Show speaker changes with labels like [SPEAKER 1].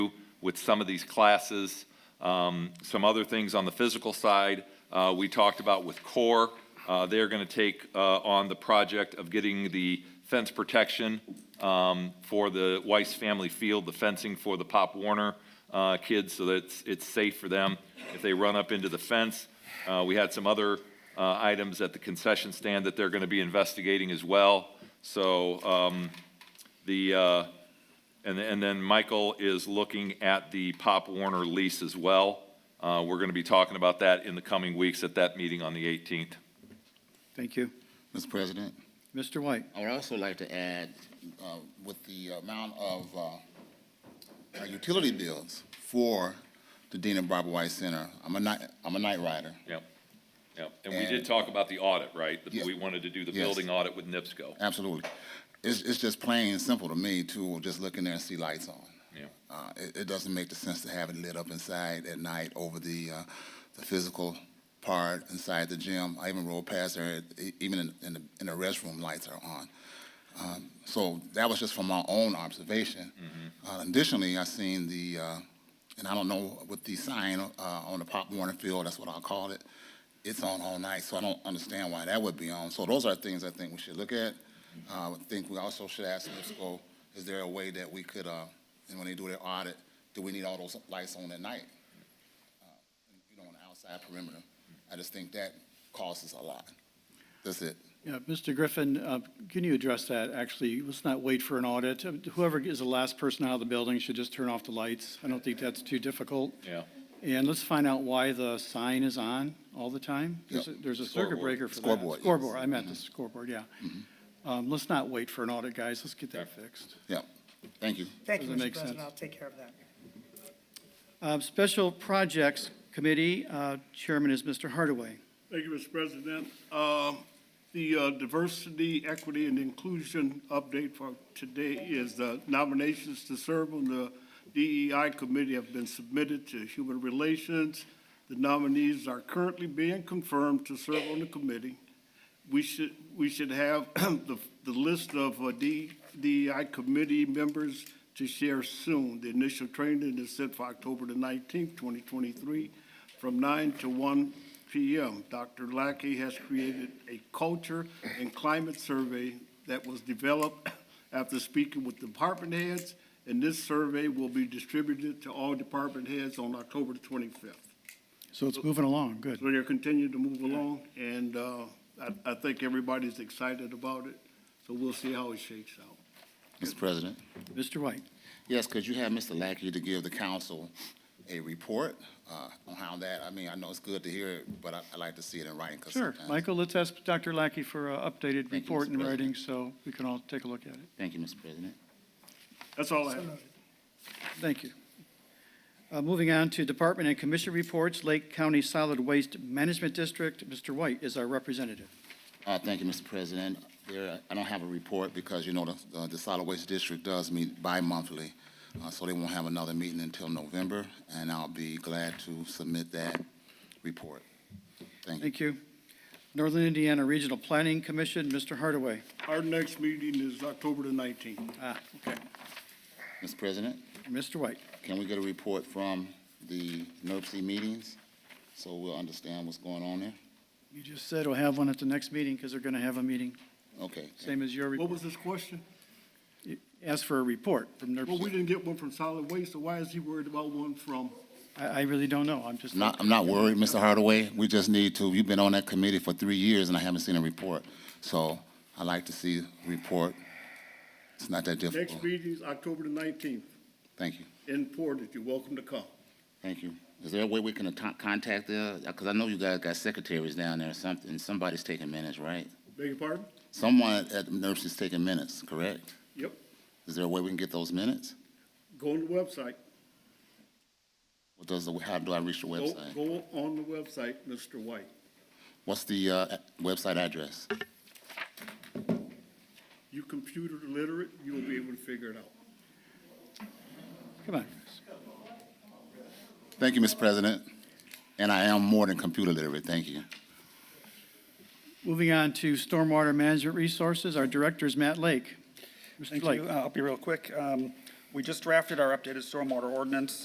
[SPEAKER 1] with some of these classes. Um, Some other things on the physical side, uh, we talked about with CORE. Uh, They're going to take uh, on the project of getting the fence protection um, for the Weiss Family Field, the fencing for the Pop Warner uh, kids, so that it's- it's safe for them if they run up into the fence. Uh, We had some other uh, items at the concession stand that they're going to be investigating as well. So um, the, uh, and, and then Michael is looking at the Pop Warner lease as well. Uh, We're going to be talking about that in the coming weeks at that meeting on the 18th.
[SPEAKER 2] Thank you.
[SPEAKER 3] Mr. President,
[SPEAKER 2] Mr. White,
[SPEAKER 3] I would also like to add, uh, with the amount of uh, uh, utility bills for the Dean and Barbara White Center, I'm a night, I'm a night rider.
[SPEAKER 1] Yep, yep. And we did talk about the audit, right? That
[SPEAKER 3] Yeah.
[SPEAKER 1] We wanted to do the
[SPEAKER 3] Yes.
[SPEAKER 1] building audit with NIPSCO.
[SPEAKER 3] Absolutely. It's, it's just plain and simple to me to just look in there and see lights on.
[SPEAKER 1] Yeah.
[SPEAKER 3] Uh, it, it doesn't make the sense to have it lit up inside at night over the, uh, the physical part inside the gym. I even rolled past there, e- even in, in the, in the restroom, lights are on. Um, so that was just from my own observation. Uh, additionally, I seen the, uh, and I don't know with the sign uh, on the Pop Warner Field, that's what I call it. It's on all night, so I don't understand why that would be on. So those are things I think we should look at. Uh, I think we also should ask NIPSCO, is there a way that we could, uh, and when they do their audit, do we need all those lights on at night? Uh, You know, on the outside perimeter. I just think that costs us a lot. That's it.
[SPEAKER 2] yeah, Mr. Griffin, uh, can you address that? Actually, let's not wait for an audit. Um, Whoever is the last person out of the building should just turn off the lights. I don't think that's too difficult.
[SPEAKER 1] Yeah.
[SPEAKER 2] And let's find out why the sign is on all the time. There's a-
[SPEAKER 3] Yep.
[SPEAKER 2] There's a circuit
[SPEAKER 1] Scoreboard.
[SPEAKER 2] breaker for that.
[SPEAKER 3] Scoreboard, yes.
[SPEAKER 2] Scoreboard, Mm-hmm. I meant the scoreboard, yeah. Um, Let's not wait for an audit, guys. Let's get that fixed.
[SPEAKER 3] Yep. Thank you.
[SPEAKER 4] Thank you,
[SPEAKER 2] Doesn't make
[SPEAKER 4] Mr. President.
[SPEAKER 2] sense.
[SPEAKER 4] I'll take care of that.
[SPEAKER 2] Uh, Special Projects Committee, uh, Chairman is Mr. Hardaway.
[SPEAKER 5] Thank you, Mr. President. Uh, The uh, diversity, equity, and inclusion update for today is the nominations to serve on the DEI committee have been submitted to Human Relations. The nominees are currently being confirmed to serve on the committee. We should, we should have the, the list of uh, D- DEI committee members to share soon. The initial training is set for October the nineteenth, twenty twenty-three, from nine to one PM. Dr. Lackey has created a culture and climate survey that was developed after speaking with department heads, and this survey will be distributed to all department heads on October the twenty-fifth.
[SPEAKER 2] So it's moving along, good.
[SPEAKER 5] So they're continuing to move along, and uh, I, I think everybody's excited about it, so we'll see how it shakes out.
[SPEAKER 3] Mr. President.
[SPEAKER 2] Mr. White,
[SPEAKER 3] Yes, could you have Mr. Lackey to give the council a report uh, on how that, I mean, I know it's good to hear it, but I- I'd like to see it in writing. 'cause
[SPEAKER 2] sure.
[SPEAKER 3] sometimes-
[SPEAKER 2] Michael, let's ask Dr. Lackey for an updated
[SPEAKER 3] you,
[SPEAKER 2] report
[SPEAKER 3] Mr.
[SPEAKER 2] in
[SPEAKER 3] President.
[SPEAKER 2] writing, so we can all take a look at it.
[SPEAKER 3] Thank you, Mr. President.
[SPEAKER 5] That's all I have.
[SPEAKER 2] Thank you. Uh, Moving on to department and commission reports, Lake County Solid Waste Management District, Mr. White is our representative.
[SPEAKER 3] Uh, Thank you, Mr. President. There, I don't have a report because, you know, the- uh, the Solid Waste District does meet bi-monthly, uh, so they won't have another meeting until November, and I'll be glad to submit that report. Thank you.
[SPEAKER 2] Thank you. Northern Indiana Regional Planning Commission, Mr. Hardaway.
[SPEAKER 5] Our next meeting is October the nineteenth.
[SPEAKER 2] Ah, okay.
[SPEAKER 3] Mr. President,
[SPEAKER 2] Mr. White,
[SPEAKER 3] can we get a report from the NERC meetings so we'll understand what's going on there?
[SPEAKER 2] you just said we'll have one at the next meeting because they're going to have a meeting,
[SPEAKER 3] Okay.
[SPEAKER 2] same as your,
[SPEAKER 5] What
[SPEAKER 2] report.
[SPEAKER 5] was this question?
[SPEAKER 2] ask for a report from
[SPEAKER 5] Well, we
[SPEAKER 2] NERC.
[SPEAKER 5] didn't get one from solid waste, so why is he worried about one from?
[SPEAKER 2] I, I really don't know. I'm just.
[SPEAKER 3] I'm not, I'm not worried, Mr. Hardaway. We just need to, you've been on that committee for three years and I haven't seen a report. So I'd like to see a report. It's not that difficult.
[SPEAKER 5] Next meeting is October the nineteenth
[SPEAKER 3] Thank you,
[SPEAKER 5] in Portage. You're welcome to come.
[SPEAKER 3] thank you. Is there a way we can atta- contact the, because I know you guys got secretaries down there or something. Somebody's taking minutes, right?
[SPEAKER 5] Beg your pardon?
[SPEAKER 3] Someone at NERC is taking minutes, correct?
[SPEAKER 5] Yep.
[SPEAKER 3] Is there a way we can get those minutes?
[SPEAKER 5] Go on the website.
[SPEAKER 3] What does, the- how do I reach the
[SPEAKER 5] Go,
[SPEAKER 3] website?
[SPEAKER 5] go on the website, Mr. White.
[SPEAKER 3] What's the, uh, website address?
[SPEAKER 5] You computer literate, you will be able to figure it out.
[SPEAKER 2] Come on.
[SPEAKER 3] Thank you, Mr. President. And I am more than computer literate, thank you.
[SPEAKER 2] Moving on to stormwater management resources, our director is Matt Lake. Mr.
[SPEAKER 6] Thank
[SPEAKER 2] Lake.
[SPEAKER 6] you. Uh, I'll be real quick. Um, We just drafted our updated stormwater ordinance.